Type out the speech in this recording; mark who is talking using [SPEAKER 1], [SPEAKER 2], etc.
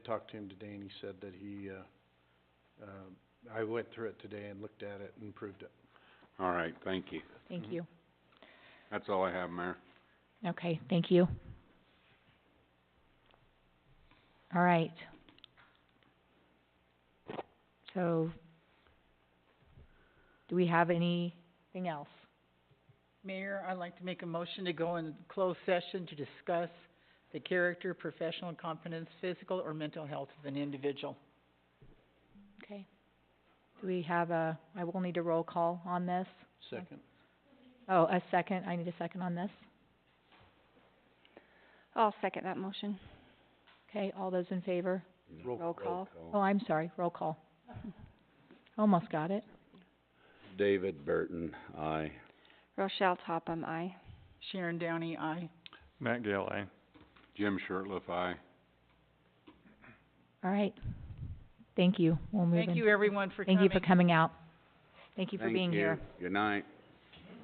[SPEAKER 1] talked to him today and he said that he, uh, um, I went through it today and looked at it and approved it.
[SPEAKER 2] All right, thank you.
[SPEAKER 1] Mhm.
[SPEAKER 3] Thank you.
[SPEAKER 2] That's all I have, Mayor.
[SPEAKER 3] Okay, thank you. All right. So, do we have anything else?
[SPEAKER 4] Mayor, I'd like to make a motion to go in closed session to discuss the character, professional competence, physical or mental health of an individual.
[SPEAKER 3] Okay. Do we have a, I will need a roll call on this.
[SPEAKER 1] Second.
[SPEAKER 3] Oh, a second, I need a second on this.
[SPEAKER 5] I'll second that motion.
[SPEAKER 3] Okay, all those in favor?
[SPEAKER 5] Roll call.
[SPEAKER 3] Oh, I'm sorry, roll call. Almost got it.
[SPEAKER 2] David Burton, aye.
[SPEAKER 5] Rochelle Topham, aye.
[SPEAKER 4] Sharon Downey, aye.
[SPEAKER 6] Matt Gale, aye.
[SPEAKER 2] Jim Shirtliff, aye.
[SPEAKER 3] All right. Thank you, we'll move in.
[SPEAKER 4] Thank you, everyone, for coming.
[SPEAKER 3] Thank you for coming out. Thank you for being here.
[SPEAKER 2] Thank you, good night.